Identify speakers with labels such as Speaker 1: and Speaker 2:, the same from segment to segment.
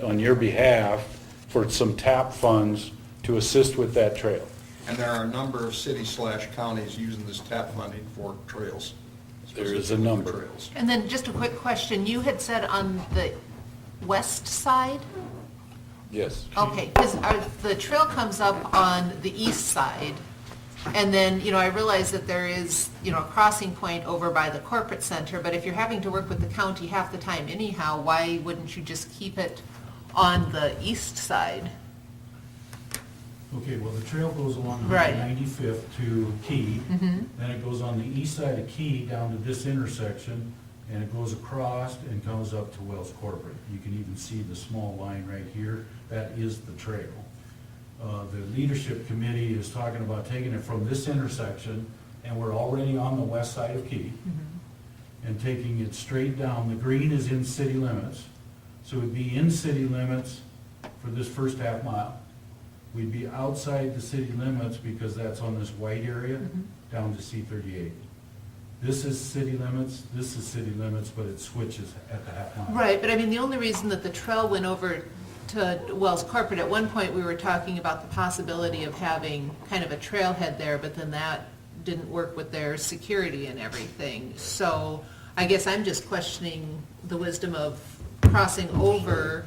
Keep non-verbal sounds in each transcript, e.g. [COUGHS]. Speaker 1: on your behalf for some TAP funds to assist with that trail.
Speaker 2: And there are a number of cities slash counties using this TAP funding for trails.
Speaker 1: There is
Speaker 2: specifically
Speaker 1: a
Speaker 2: for
Speaker 1: number.
Speaker 2: Trails.
Speaker 3: And then just a quick question, you had said on the west side?
Speaker 1: Yes.
Speaker 3: Okay, because the trail comes up on the east side, and then, you know, I realize that there is, you know, a crossing point over by the corporate center, but if you're having to work with the county half the time anyhow, why wouldn't you just keep it on the east side?
Speaker 4: Okay, well, the trail goes along
Speaker 3: Right.
Speaker 4: 95th to Key, then it goes on the east side of Key down to this intersection, and it goes across and comes up to Wells Corporate. You can even see the small line right here, that is the trail. Uh, The leadership committee is talking about taking it from this intersection, and we're already on the west side of Key, and taking it straight down. The green is in city limits, so it'd be in city limits for this first half mile. We'd be outside the city limits because that's on this white area
Speaker 3: Mm-hmm.
Speaker 4: down to C thirty-eight. This is city limits, this is city limits, but it switches at the half mile.
Speaker 3: Right, but I mean, the only reason that the trail went over to Wells Corporate, at one point, we were talking about the possibility of having kind of a trailhead there, but then that didn't work with their security and everything. So I guess I'm just questioning the wisdom of crossing over,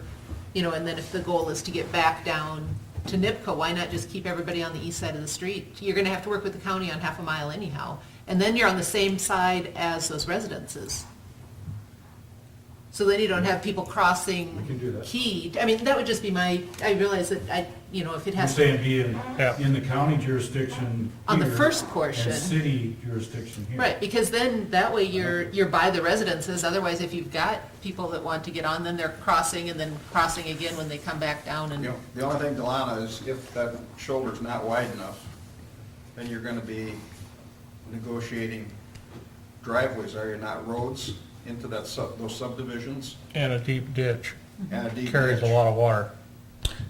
Speaker 3: you know, and then if the goal is to get back down to NIPCO, why not just keep everybody on the east side of the street? You're gonna have to work with the county on half a mile anyhow, and then you're on the same side as those residences. So then you don't have people crossing.
Speaker 4: We can do that.
Speaker 3: Key, I mean, that would just be my, I realize that I, you know, if it
Speaker 4: You're
Speaker 3: has.
Speaker 4: saying be in,
Speaker 5: Yeah.
Speaker 4: in the county jurisdiction
Speaker 3: On the
Speaker 4: here
Speaker 3: first portion.
Speaker 4: And city jurisdiction here.
Speaker 3: Right, because then, that way you're, you're by the residences, otherwise if you've got people that want to get on, then they're crossing and then crossing again when they come back down
Speaker 2: You
Speaker 3: and.
Speaker 2: know, the only thing, Delana, is if that shoulder's not wide enough, then you're gonna be negotiating driveways, are you not, roads into that sub, those subdivisions?
Speaker 5: And a deep ditch
Speaker 3: Mm-hmm.
Speaker 2: And a deep
Speaker 5: carries a
Speaker 2: ditch.
Speaker 5: lot of water.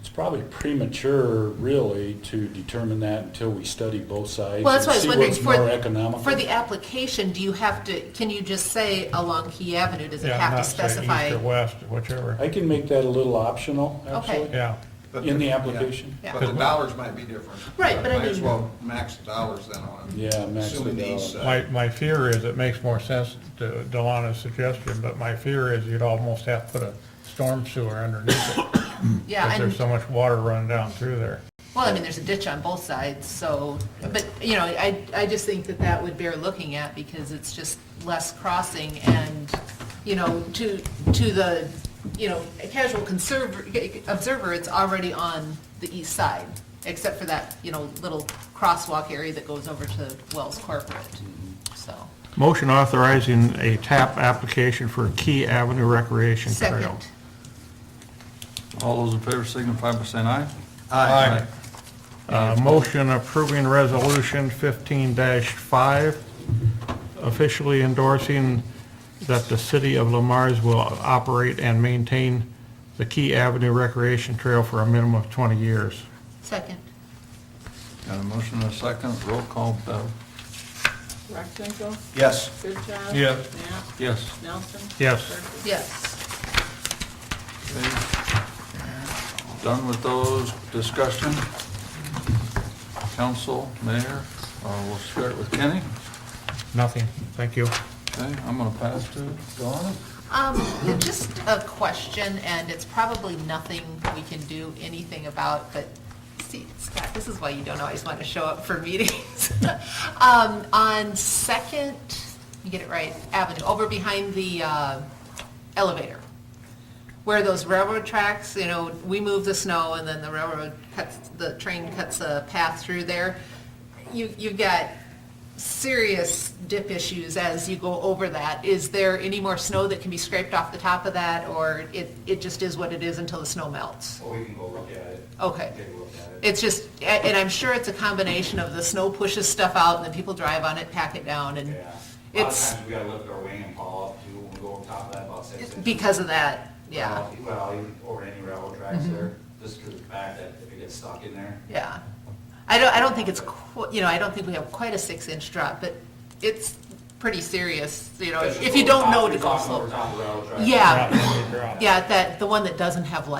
Speaker 1: It's probably premature, really, to determine that until we study both sides.
Speaker 3: Well, that's what
Speaker 1: and
Speaker 3: I was wondering,
Speaker 1: See what's more
Speaker 3: for,
Speaker 1: economical.
Speaker 3: for the application, do you have to, can you just say along Key Avenue, does it
Speaker 5: Yeah,
Speaker 3: have to
Speaker 5: not saying
Speaker 3: specify?
Speaker 5: East or west, whichever.
Speaker 1: I can make that a little optional, actually,
Speaker 5: Yeah,
Speaker 2: But
Speaker 1: in the
Speaker 2: yeah.
Speaker 1: application.
Speaker 3: Yeah.
Speaker 2: But the dollars might be different.
Speaker 3: Right, but I
Speaker 2: Might as
Speaker 3: mean-
Speaker 2: well max the dollars then on it.
Speaker 1: Yeah, max the
Speaker 2: Assuming these,
Speaker 1: dollars.
Speaker 2: uh,
Speaker 5: my, my fear is it makes more sense to Delana's suggestion, but my fear is you'd almost have to put a storm sewer underneath it.
Speaker 3: [COUGHS] Yeah,
Speaker 5: Because
Speaker 3: and,
Speaker 5: there's so much water running down through there.
Speaker 3: well, I mean, there's a ditch on both sides, so, but, you know, I, I just think that that would bear looking at because it's just less crossing and, you know, to, to the, you know, a casual conserver, observer, it's already on the east side, except for that, you know, little crosswalk area that goes over to Wells Corporate, so.
Speaker 5: Motion authorizing a TAP application for Key Avenue Recreation Trail.
Speaker 3: Second.
Speaker 6: All those in favor signify by saying aye.
Speaker 2: Aye.
Speaker 5: Uh, Motion approving Resolution 15-5, officially endorsing that the city of Lamar's will operate and maintain the Key Avenue Recreation Trail for a minimum of 20 years.
Speaker 3: Second.
Speaker 6: Got a motion and a second, roll call, Bev.
Speaker 7: Rexbenko,
Speaker 2: Yes.
Speaker 7: Goodchild.
Speaker 5: Yes.
Speaker 7: Knapp,
Speaker 6: Yes.
Speaker 7: Nelson.
Speaker 5: Yes.
Speaker 7: Berkey.
Speaker 3: Yes.
Speaker 6: Done with those, discussion? Council, mayor, uh, we'll start with Kenny.
Speaker 5: Nothing. Thank you.
Speaker 6: Okay, I'm gonna pass to Donna.
Speaker 3: Um, just a question, and it's probably nothing we can do anything about, but see, Scott, this is why you don't always want to show up for [LAUGHS] meetings. Um, on Second, you get it right, Avenue, over behind the, uh, elevator where those railroad tracks, you know, we move the snow and then the railroad cuts, the train cuts a path through there. You, you've got serious dip issues as you go over that. Is there any more snow that can be scraped off the top of that or it, it just is what it is until the snow melts?
Speaker 8: Well, we can go look at it.
Speaker 3: Okay.
Speaker 8: Take a look at it.
Speaker 3: It's just, a- and I'm sure it's a combination of the snow pushes stuff out and then people drive on it, pack it down and
Speaker 8: Yeah. A lot of
Speaker 3: it's
Speaker 8: times we gotta lift our wing and haul up too, when we go on top of that about six inches.
Speaker 3: because of that, yeah, Mm-hmm.
Speaker 8: Well, Well, even over any railroad tracks there, just because of the fact that if it gets stuck in there,
Speaker 3: yeah. I don't, I don't think it's, qu- you know, I don't think we have quite a six-inch drop, but it's pretty serious, you know,
Speaker 8: That's just
Speaker 3: if you
Speaker 8: over
Speaker 3: don't
Speaker 8: top-
Speaker 3: know
Speaker 8: you're
Speaker 3: to go
Speaker 8: talking over
Speaker 3: slow.
Speaker 8: top of railroad tracks.
Speaker 3: Yeah, yeah, that, the one that doesn't have lights